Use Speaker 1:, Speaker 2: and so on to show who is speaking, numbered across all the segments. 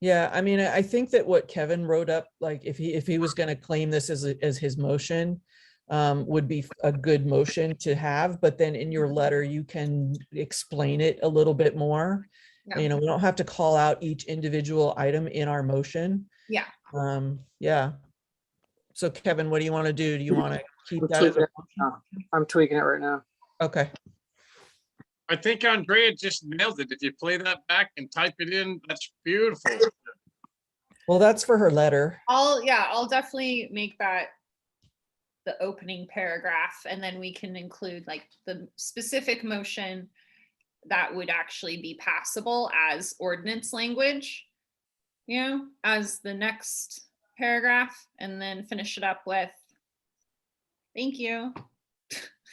Speaker 1: Yeah, I mean, I I think that what Kevin wrote up, like if he, if he
Speaker 2: Mm-hmm.
Speaker 1: was gonna claim this as, a- as his motion, um, would be a good motion to have, but then in your
Speaker 2: Mm-hmm.
Speaker 1: letter, you can explain it a little bit more.
Speaker 2: Yeah.
Speaker 1: You know, we don't have to call out each individual item in our motion.
Speaker 2: Yeah.
Speaker 1: Um, yeah. So Kevin, what do you want to do? Do you want to keep
Speaker 3: I'm
Speaker 1: that? as
Speaker 3: tweaking
Speaker 1: a-
Speaker 3: it now. I'm tweaking it right now.
Speaker 1: Okay,
Speaker 4: I think Andrea just nailed it. If you play that back and type it in, that's beautiful.
Speaker 1: well, that's for her letter.
Speaker 2: I'll, yeah, I'll definitely make that the opening paragraph and then we can include like the specific motion that would actually be passable as ordinance language, you know, as the next paragraph and then finish it up with, thank you.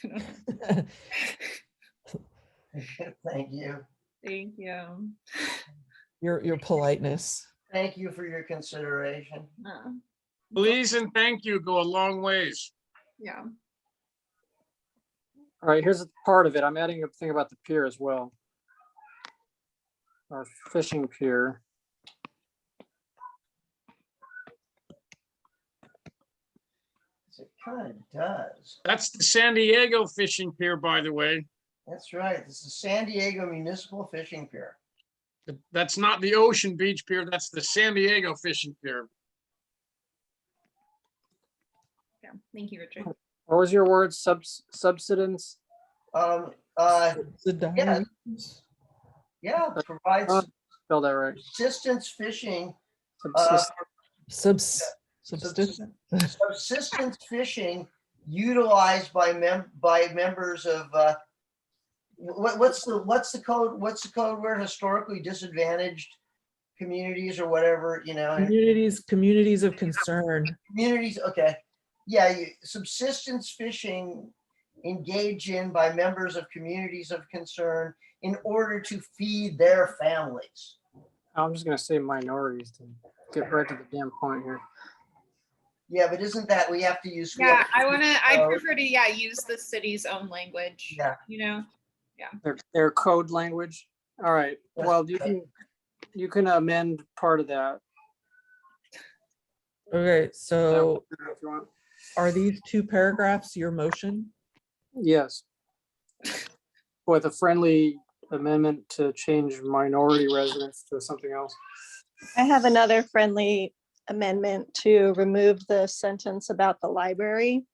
Speaker 5: Thank you.
Speaker 2: Thank you.
Speaker 1: Your, your politeness.
Speaker 5: Thank you for your consideration.
Speaker 2: Uh,
Speaker 4: Please and thank you go a long ways.
Speaker 2: Yeah,
Speaker 3: All right, here's a part of it. I'm adding a thing about the pier as well. Our fishing pier.
Speaker 5: So It kind of does.
Speaker 4: That's the San Diego fishing pier, by the way.
Speaker 5: That's right. This is San Diego Municipal Fishing Pier.
Speaker 4: That's not the Ocean Beach Pier, that's the San Diego fishing pier.
Speaker 2: yeah. Thank you, Richard.
Speaker 3: What was your word? Subs, subsidence?
Speaker 5: Um, uh, yeah.
Speaker 1: Subsidize.
Speaker 5: Yeah, provides
Speaker 3: Uh, Spell that right.
Speaker 5: subsistence fishing, uh,
Speaker 3: Subsist-
Speaker 1: Subs, subsist-
Speaker 5: subsist- subsistence fishing utilized by mem, by members of, uh, what, what's the, what's the code, what's the code word? Historically disadvantaged communities or whatever, you know? and-
Speaker 1: communities, communities of concern.
Speaker 5: Communities, okay. Yeah, you- subsistence fishing engaged in by members of communities of concern in order to feed their families.
Speaker 3: I'm just gonna say minorities to get right to the damn point here.
Speaker 5: Yeah, but isn't that, we have to use. we
Speaker 2: Yeah,
Speaker 5: have
Speaker 2: I wanna, I
Speaker 5: code.
Speaker 2: prefer to, yeah, use the city's own language.
Speaker 5: Yeah.
Speaker 2: You know?
Speaker 3: Their, their code language. All right, well, you can, you can amend part of that
Speaker 1: Okay, so
Speaker 3: if you want.
Speaker 1: are these two paragraphs your motion?
Speaker 3: Yes. With a friendly amendment to change minority residents to something else.
Speaker 6: I have another friendly amendment to remove the sentence about the library.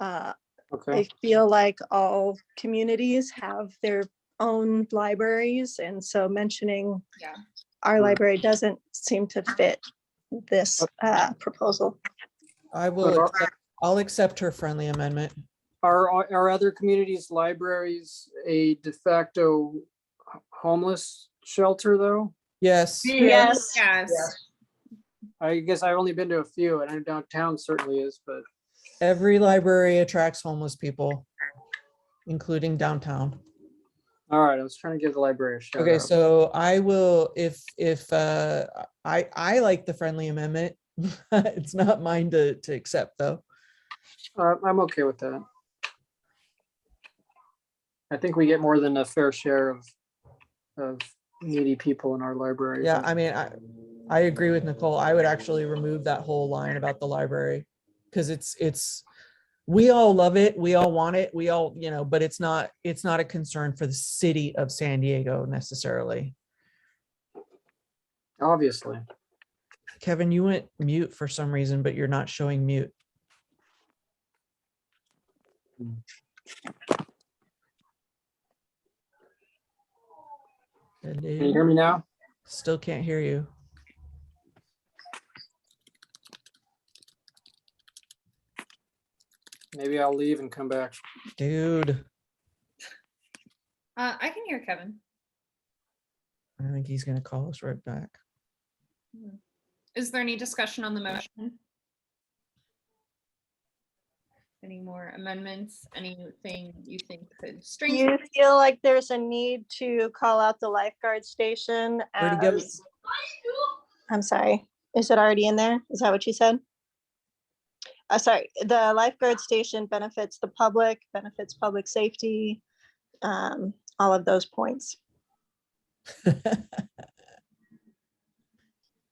Speaker 6: Uh,
Speaker 3: Okay,
Speaker 6: I feel like all communities have their own libraries, and so mentioning
Speaker 2: Yeah.
Speaker 6: our
Speaker 3: Hmm.
Speaker 6: library doesn't seem to fit this uh, proposal.
Speaker 1: I
Speaker 3: Sure.
Speaker 1: will, accept- I'll accept her friendly amendment.
Speaker 3: are, are are other communities' libraries a de facto h- homeless shelter, though?
Speaker 1: Yes,
Speaker 6: Yes.
Speaker 2: Yes.
Speaker 3: I guess I've only been to a few, and I know downtown certainly is, but
Speaker 1: every library attracts homeless people, including downtown.
Speaker 3: all right, I was trying to give the library a shout
Speaker 1: Okay,
Speaker 3: out.
Speaker 1: so I will, if, if, uh, I, I like the friendly amendment. It's not mine to, to accept, though.
Speaker 3: Uh, I'm okay with that. I think we get more than a fair share of, of needy people in our library.
Speaker 1: Yeah, I mean, I, I agree with Nicole. I would actually remove that whole line about the library. Cause it's, it's, we all love it. We all want it. We all, you know, but it's not, it's not a concern for the city of San Diego necessarily.
Speaker 3: Obviously.
Speaker 1: Kevin, you went mute for some reason, but you're not showing mute.
Speaker 3: Can you hear me now?
Speaker 1: Still can't hear you.
Speaker 3: Maybe I'll leave and come back.
Speaker 1: Dude,
Speaker 2: Uh, I can hear Kevin.
Speaker 1: I think he's gonna call us right back.
Speaker 2: Is there any discussion on the motion? Any more amendments, anything you think could
Speaker 6: Do
Speaker 2: strengthen?
Speaker 6: you feel like there's a need to call out the lifeguard station
Speaker 1: Already go-
Speaker 6: as? I'm sorry, is it already in there? Is that what you said? Uh, sorry, the lifeguard station benefits the public, benefits public safety, um, all of those points.